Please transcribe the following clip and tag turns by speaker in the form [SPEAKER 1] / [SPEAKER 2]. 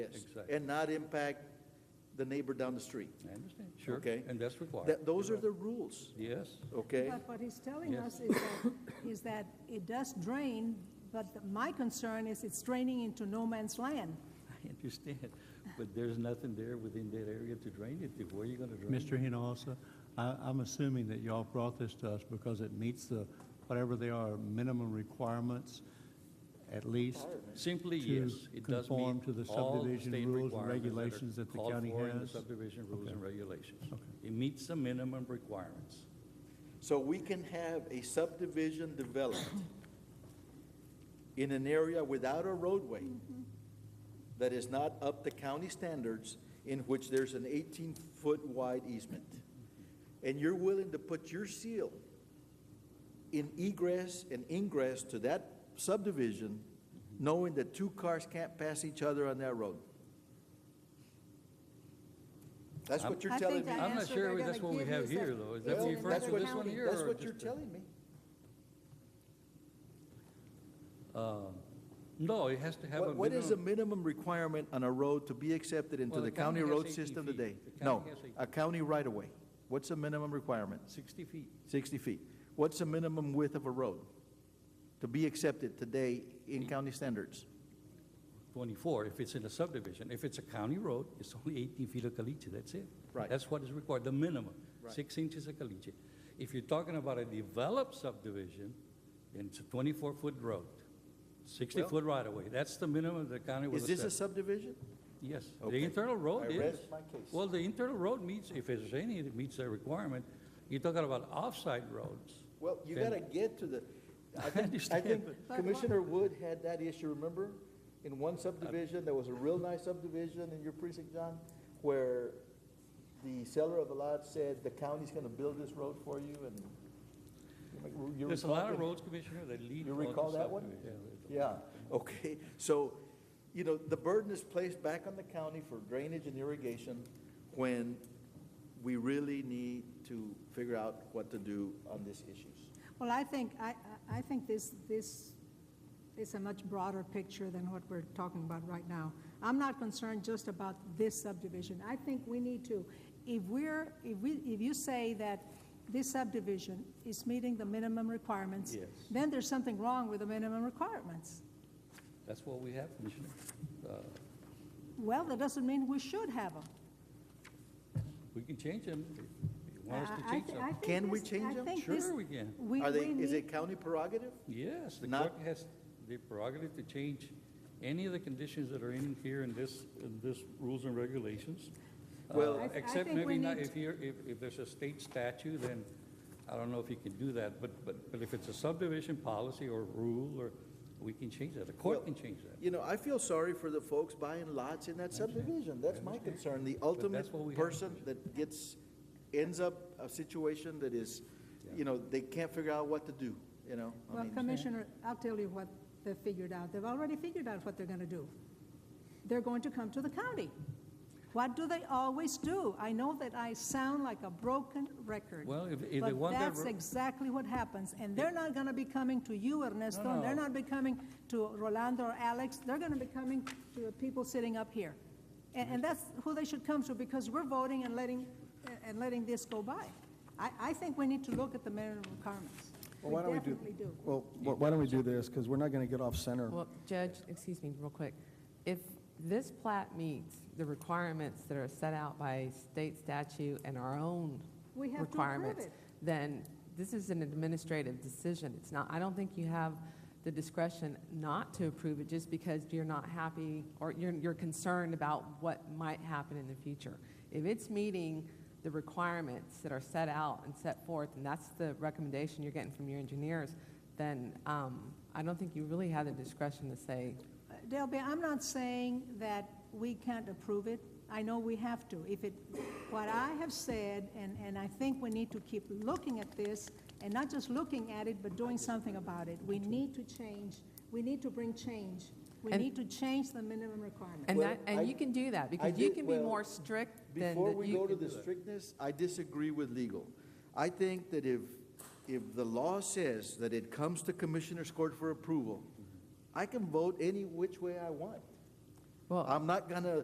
[SPEAKER 1] Yes,
[SPEAKER 2] Exactly.
[SPEAKER 1] and not impact the neighbor down the street.
[SPEAKER 2] I understand, sure.
[SPEAKER 1] Okay.
[SPEAKER 2] And that's required.
[SPEAKER 1] That, those
[SPEAKER 2] You're
[SPEAKER 1] are the rules,
[SPEAKER 2] right. Yes,
[SPEAKER 1] okay?
[SPEAKER 3] But what he's telling
[SPEAKER 2] Yes.
[SPEAKER 3] us is that, is that it does drain, but the- my concern is it's draining into no man's land.
[SPEAKER 2] I understand, but there's nothing there within that area to drain it to. Where are you gonna drain it?
[SPEAKER 4] Mr. Hinojosa, I, I'm assuming that y'all brought this to us because it meets the, whatever they are, minimum requirements, at least.
[SPEAKER 2] Simply,
[SPEAKER 4] to
[SPEAKER 2] yes, it does meet
[SPEAKER 4] conform to the
[SPEAKER 2] all
[SPEAKER 4] subdivision
[SPEAKER 2] state
[SPEAKER 4] rules and
[SPEAKER 2] requirements that are
[SPEAKER 4] regulations that the
[SPEAKER 2] called
[SPEAKER 4] county
[SPEAKER 2] for in the
[SPEAKER 4] has?
[SPEAKER 2] subdivision rules and regulations.
[SPEAKER 4] Okay.
[SPEAKER 2] It meets the minimum requirements.
[SPEAKER 1] So we can have a subdivision developed in an area without a roadway that is not up to county standards, in which there's an eighteen-foot wide easement. And you're willing to put your seal in egress and ingress to that subdivision, knowing that two cars can't pass each other on that road? That's what you're
[SPEAKER 3] I
[SPEAKER 1] telling
[SPEAKER 3] think
[SPEAKER 1] me.
[SPEAKER 3] the
[SPEAKER 2] I'm not
[SPEAKER 3] answer
[SPEAKER 2] sure
[SPEAKER 3] they're
[SPEAKER 2] that's
[SPEAKER 3] gonna
[SPEAKER 2] what we
[SPEAKER 3] give
[SPEAKER 2] have
[SPEAKER 3] is that
[SPEAKER 2] here, though. Is that
[SPEAKER 3] it's
[SPEAKER 2] what you referred to
[SPEAKER 3] in another
[SPEAKER 2] this one
[SPEAKER 3] county.
[SPEAKER 2] here?
[SPEAKER 1] That's
[SPEAKER 2] or
[SPEAKER 1] what you're
[SPEAKER 2] just-
[SPEAKER 1] telling me.
[SPEAKER 2] Um, No, it has to have a
[SPEAKER 1] What,
[SPEAKER 2] minimum.
[SPEAKER 1] what is the minimum requirement on a road to be accepted into
[SPEAKER 2] Well,
[SPEAKER 1] the
[SPEAKER 2] the county
[SPEAKER 1] county
[SPEAKER 2] has
[SPEAKER 1] road
[SPEAKER 2] 18
[SPEAKER 1] system
[SPEAKER 2] feet.
[SPEAKER 1] today?
[SPEAKER 2] The
[SPEAKER 1] No,
[SPEAKER 2] county has 18.
[SPEAKER 1] a county right-of-way. What's the minimum requirement?
[SPEAKER 2] Sixty feet.
[SPEAKER 1] Sixty feet. What's the minimum width of a road to be accepted today in county standards?
[SPEAKER 2] 24, if it's in a subdivision. If it's a county road, it's only 18 feet of caliche, that's it.
[SPEAKER 1] Right.
[SPEAKER 2] That's what is required, the minimum,
[SPEAKER 1] Right.
[SPEAKER 2] six inches of caliche. If you're talking about a developed subdivision, then it's a 24-foot road,
[SPEAKER 1] Well-
[SPEAKER 2] 60-foot right-of-way. That's the minimum the county will
[SPEAKER 1] Is this a
[SPEAKER 2] accept.
[SPEAKER 1] subdivision?
[SPEAKER 2] Yes, the
[SPEAKER 1] Okay.
[SPEAKER 2] internal road
[SPEAKER 1] I
[SPEAKER 2] is.
[SPEAKER 1] rest my case.
[SPEAKER 2] Well, the internal road meets, if there's any, it meets the requirement. You're talking about off-site roads.
[SPEAKER 1] Well, you
[SPEAKER 2] Then-
[SPEAKER 1] gotta get to the, I think, I
[SPEAKER 2] understand,
[SPEAKER 1] think
[SPEAKER 2] but-
[SPEAKER 3] But
[SPEAKER 1] Commissioner Wood had that issue, remember? In one subdivision, there was a real nice subdivision in your precinct, John, where the seller of the lot said, the county's gonna build this road for you and. you- you
[SPEAKER 2] There's a
[SPEAKER 1] recall
[SPEAKER 2] lot of
[SPEAKER 1] that?
[SPEAKER 2] roads, Commissioner, that lead.
[SPEAKER 1] You
[SPEAKER 2] onto
[SPEAKER 1] recall that one?
[SPEAKER 2] subdivision.
[SPEAKER 1] Yeah, okay, so, you know, the burden is placed back on the county for drainage and irrigation when we really need to figure out what to do on these issues.
[SPEAKER 3] Well, I think, I, I I think this, this is a much broader picture than what we're talking about right now. I'm not concerned just about this subdivision. I think we need to, if we're, if we, if you say that this subdivision is meeting the minimum requirements,
[SPEAKER 2] Yes.
[SPEAKER 3] then there's something wrong with the minimum requirements.
[SPEAKER 2] That's what we have, Commissioner. Uh,
[SPEAKER 3] Well, that doesn't mean we should have them.
[SPEAKER 2] We can change them if you want us to
[SPEAKER 3] I- I
[SPEAKER 2] change
[SPEAKER 3] thi- I
[SPEAKER 2] them.
[SPEAKER 3] think
[SPEAKER 1] Can we
[SPEAKER 3] this-
[SPEAKER 1] change
[SPEAKER 3] I
[SPEAKER 1] them?
[SPEAKER 3] think this-
[SPEAKER 2] Sure we can.
[SPEAKER 3] we-
[SPEAKER 1] Are they,
[SPEAKER 3] we
[SPEAKER 1] is
[SPEAKER 3] need-
[SPEAKER 1] it county prerogative?
[SPEAKER 2] Yes, the
[SPEAKER 1] Not-
[SPEAKER 2] court has the prerogative to change any of the conditions that are in here in this, in this rules and regulations. Uh,
[SPEAKER 1] Well- I
[SPEAKER 3] th- I
[SPEAKER 2] Except
[SPEAKER 3] think we
[SPEAKER 2] maybe not,
[SPEAKER 3] need-
[SPEAKER 2] if you're, if, if there's a state statute, then I don't know if you can do that, but, but, but if it's a subdivision policy or rule, or, we can change that. The court
[SPEAKER 1] Well,
[SPEAKER 2] can change that.
[SPEAKER 1] You know, I feel sorry for the folks buying lots in that subdivision. That's my concern. The
[SPEAKER 2] that's what we
[SPEAKER 1] ultimate
[SPEAKER 2] have.
[SPEAKER 1] person that gets, ends up a situation that is, you know, they can't figure out what to do, you know? I
[SPEAKER 3] Well,
[SPEAKER 1] mean,
[SPEAKER 3] Commissioner, I'll tell you what they've figured out. They've already figured out what they're going to do. They're going to come to the county. What do they always do? I know that I sound like a broken record.
[SPEAKER 2] Well, if- if they want that
[SPEAKER 3] But that's
[SPEAKER 2] ro-
[SPEAKER 3] exactly what happens, and they're not going to be coming to you, Ernesto, and they're
[SPEAKER 2] no.
[SPEAKER 3] not be coming to Rolando or Alex, they're going to be coming to the people sitting up here. And, and that's who they should come to, because we're voting and letting, and letting this go by. I, I think we need to look at the minimum requirements.
[SPEAKER 5] Well, why don't we do-
[SPEAKER 3] definitely do.
[SPEAKER 5] Well, wh- why don't we do this, because we're not going to get off center.
[SPEAKER 6] Well, Judge, excuse me, real quick. If this plat meets the requirements that are set out by state statute and our own
[SPEAKER 3] We have to approve
[SPEAKER 6] requirements,
[SPEAKER 3] it.
[SPEAKER 6] then this is an administrative decision. It's not, I don't think you have the discretion not to approve it just because you're not happy or you're, you're concerned about what might happen in the future. If it's meeting the requirements that are set out and set forth, and that's the recommendation you're getting from your engineers, then um, I don't think you really have the discretion to say,
[SPEAKER 3] Delby, I'm not saying that we can't approve it. I know we have to. If it, what I have said, and, and I think we need to keep looking at this, and not just looking at it, but doing something about it. We need to change, we need to bring change. We
[SPEAKER 6] And-
[SPEAKER 3] need to change the minimum requirement.
[SPEAKER 6] and
[SPEAKER 1] Well,
[SPEAKER 6] that,
[SPEAKER 1] I-
[SPEAKER 6] and you can do that
[SPEAKER 1] I
[SPEAKER 6] because you
[SPEAKER 1] did-
[SPEAKER 6] can be
[SPEAKER 1] well,
[SPEAKER 6] more strict than
[SPEAKER 1] Before
[SPEAKER 6] that
[SPEAKER 1] we
[SPEAKER 6] you
[SPEAKER 1] go to
[SPEAKER 6] can
[SPEAKER 1] the
[SPEAKER 6] do it.
[SPEAKER 1] strictness, I disagree with legal. I think that if, if the law says that it comes to Commissioner's Court for approval, I can vote any which way I want.
[SPEAKER 6] Well-
[SPEAKER 1] I'm not gonna